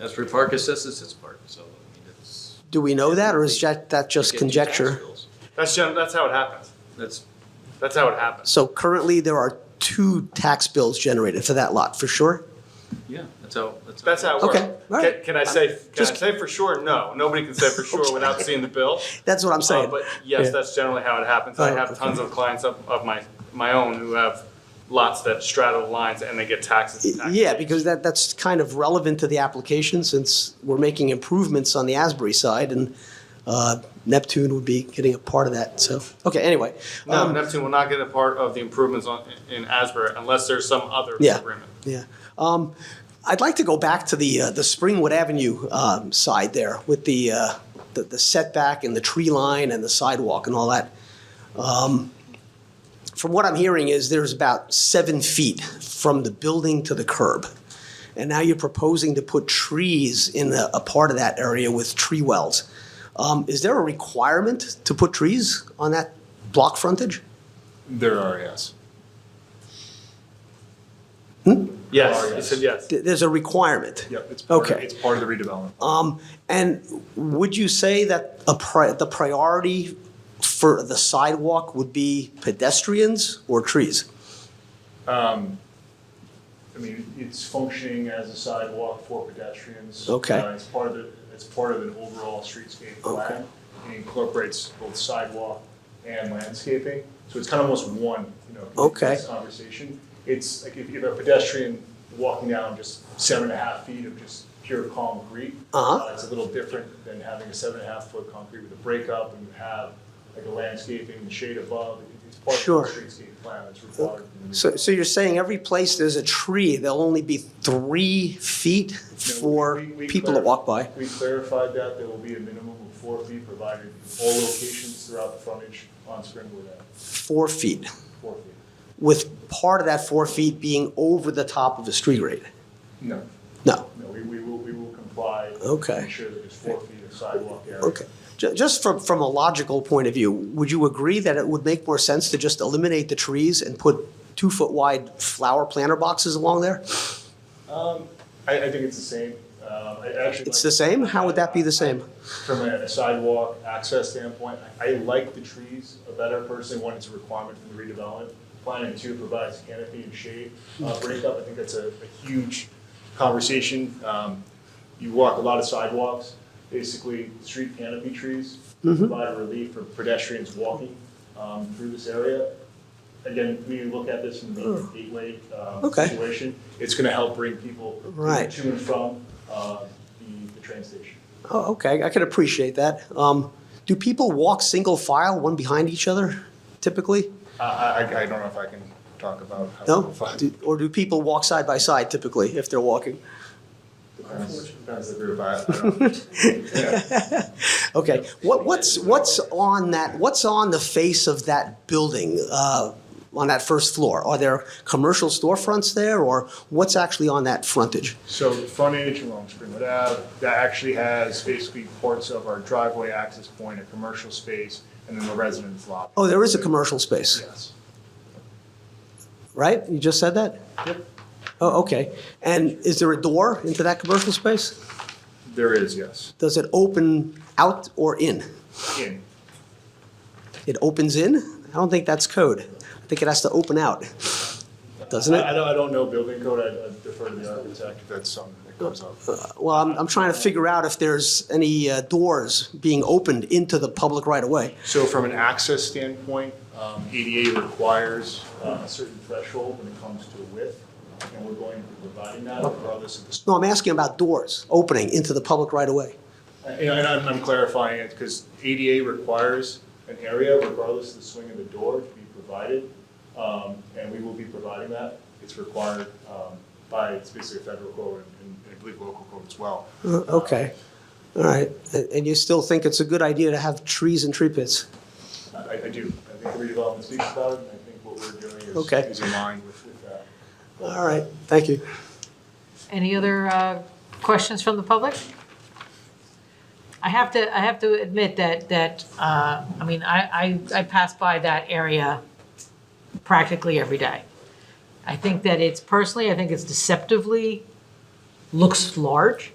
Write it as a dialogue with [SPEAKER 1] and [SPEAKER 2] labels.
[SPEAKER 1] Asbury Park is this, it's its park, so, I mean, it's.
[SPEAKER 2] Do we know that, or is that, that just
[SPEAKER 1] you get two tax
[SPEAKER 2] conjecture?
[SPEAKER 1] bills.
[SPEAKER 3] That's gen- that's how it happens.
[SPEAKER 1] That's,
[SPEAKER 3] That's how it happens.
[SPEAKER 2] So currently, there are two tax bills generated for that lot, for sure?
[SPEAKER 1] yeah, that's how, that's.
[SPEAKER 3] That's how it works.
[SPEAKER 2] Okay, all right.
[SPEAKER 3] Can, can I say? Can
[SPEAKER 2] Just-
[SPEAKER 3] I say for sure? No, nobody can say for sure without seeing the bill.
[SPEAKER 2] That's what I'm
[SPEAKER 3] Uh,
[SPEAKER 2] saying.
[SPEAKER 3] but yes,
[SPEAKER 2] Yeah.
[SPEAKER 3] that's generally how it happens.
[SPEAKER 2] Oh,
[SPEAKER 3] I have tons of clients of, of my my own who have lots that straddle the lines and they get taxes. And taxes.
[SPEAKER 2] Yeah, because that, that's kind of relevant to the application since we're making improvements on the Asbury side and uh, Neptune would be getting a part of that. So, okay, anyway.
[SPEAKER 3] No,
[SPEAKER 2] um,
[SPEAKER 3] Neptune will not get a part of the improvements on, in Asbury unless there's some other
[SPEAKER 2] Yeah.
[SPEAKER 3] agreement.
[SPEAKER 2] Yeah. Um, I'd like to go back to the, uh, the Springwood Avenue, um, side there with the, uh, the, the setback and the tree line and the sidewalk and all that. Um, from what I'm hearing is there's about seven feet from the building to the curb. And now you're proposing to put trees in a, a part of that area with tree wells. Um, is there a requirement to put trees on that block frontage?
[SPEAKER 4] There are, yes.
[SPEAKER 3] Yes,
[SPEAKER 4] Oh,
[SPEAKER 3] he
[SPEAKER 4] yes.
[SPEAKER 3] said yes.
[SPEAKER 2] Th- There's a requirement.
[SPEAKER 4] Yep, it's part,
[SPEAKER 2] Okay.
[SPEAKER 4] it's part of the redevelopment.
[SPEAKER 2] Um, and would you say that a pri- the priority for the sidewalk would be pedestrians or trees?
[SPEAKER 4] I mean, it's functioning as a sidewalk for pedestrians.
[SPEAKER 2] Okay.
[SPEAKER 4] Uh, It's part of the, it's part of an overall streetscape
[SPEAKER 2] Okay.
[SPEAKER 4] plan. It incorporates both sidewalk and landscaping, so it's kind of almost one, you know,
[SPEAKER 2] Okay.
[SPEAKER 4] this conversation. It's like if you have a pedestrian walking down just seven and a half feet of just pure concrete.
[SPEAKER 2] Uh-huh.
[SPEAKER 4] It's a little different than having a seven and a half foot concrete with a breakup and you have like a landscaping, shade above. It's
[SPEAKER 2] Sure.
[SPEAKER 4] part of the streetscape plan that's required. in the
[SPEAKER 2] So, so you're saying every place there's a tree, there'll only be three feet
[SPEAKER 4] No, we-
[SPEAKER 2] for
[SPEAKER 4] we- we
[SPEAKER 2] people that walk
[SPEAKER 4] clarif-
[SPEAKER 2] by?
[SPEAKER 4] We clarified that there will be a minimum of four feet provided in all locations throughout the frontage on Springwood Ave,
[SPEAKER 2] Four feet,
[SPEAKER 4] four feet.
[SPEAKER 2] with part of that four feet being over the top of the street grade?
[SPEAKER 4] No.
[SPEAKER 2] No,
[SPEAKER 4] No, we, we will, we will comply.
[SPEAKER 2] Okay.
[SPEAKER 4] Make sure that there's four feet of sidewalk area.
[SPEAKER 2] okay. Ju- Just from, from a logical point of view, would you agree that it would make more sense to just eliminate the trees and put two-foot wide flower planter boxes along there?
[SPEAKER 4] I, I think it's the same, um, I actually.
[SPEAKER 2] It's
[SPEAKER 4] like-
[SPEAKER 2] the same? How would that be the same?
[SPEAKER 4] From a sidewalk access standpoint, I, I like the trees a better personally, one, it's a requirement for the redevelopment plan, and two, it provides canopy and shade. Uh, breakup, I think that's a, a huge conversation. Um, you walk a lot of sidewalks, basically, street canopy trees
[SPEAKER 2] Mm-hmm.
[SPEAKER 4] provide relief for pedestrians walking, um, through this area. Again, we look at this in the gateway, um,
[SPEAKER 2] Mm. Okay.
[SPEAKER 4] situation. It's gonna help bring people
[SPEAKER 2] Right.
[SPEAKER 4] to and from, uh, the, the train station.
[SPEAKER 2] Oh, okay, I can appreciate that. Um, do people walk single file, one behind each other, typically?
[SPEAKER 4] I, Uh, I, I don't know if I can talk about. how
[SPEAKER 2] No?
[SPEAKER 4] simplified-
[SPEAKER 2] Do- Or do people walk side by side typically, if they're walking?
[SPEAKER 4] Depends, depends the group, I, I don't. yeah.
[SPEAKER 2] Okay, what, what's, what's on that, what's on the face of that building, uh, on that first floor? Are there commercial storefronts there, or what's actually on that frontage?
[SPEAKER 4] So the frontage along Springwood Ave, that actually has basically parts of our driveway access point, a commercial space, and then the residence lot.
[SPEAKER 2] Oh, there is a commercial space,
[SPEAKER 4] Yes.
[SPEAKER 2] right? You just said that?
[SPEAKER 4] Yep.
[SPEAKER 2] Oh, okay. And is there a door into that commercial space?
[SPEAKER 4] There is, yes.
[SPEAKER 2] Does it open out or in?
[SPEAKER 4] In,
[SPEAKER 2] It opens in? I don't think that's code. I think it has to open out, doesn't
[SPEAKER 4] I, I
[SPEAKER 2] it?
[SPEAKER 4] don't, I don't know building code, I I defer to the architect. if That's something that comes up.
[SPEAKER 2] Well, I'm, I'm trying to figure out if there's any uh, doors being opened into the public right away.
[SPEAKER 4] So from an access standpoint, um, ADA requires uh, a certain threshold when it comes to width, and we're going to be providing that regardless of the
[SPEAKER 2] No, I'm asking about doors opening into the public right away.
[SPEAKER 4] And and I'm I'm clarifying it, because ADA requires an area regardless of the swing of the door to be provided, um, and we will be providing that. It's required um, by, it's basically a federal code and- and I believe local code as well.
[SPEAKER 2] Uh, Okay, all right. And and you still think it's a good idea to have trees and tree pits?
[SPEAKER 4] Uh, I I do, I think the redevelopment speaks about it, and I think what we're doing
[SPEAKER 2] Okay.
[SPEAKER 4] is- is in line with with that.
[SPEAKER 2] All right, thank you.
[SPEAKER 5] Any other uh, questions from the public? I have to, I have to admit that, that, uh, I mean, I, I, I pass by that area practically every day. I think that it's personally, I think it's deceptively, looks large.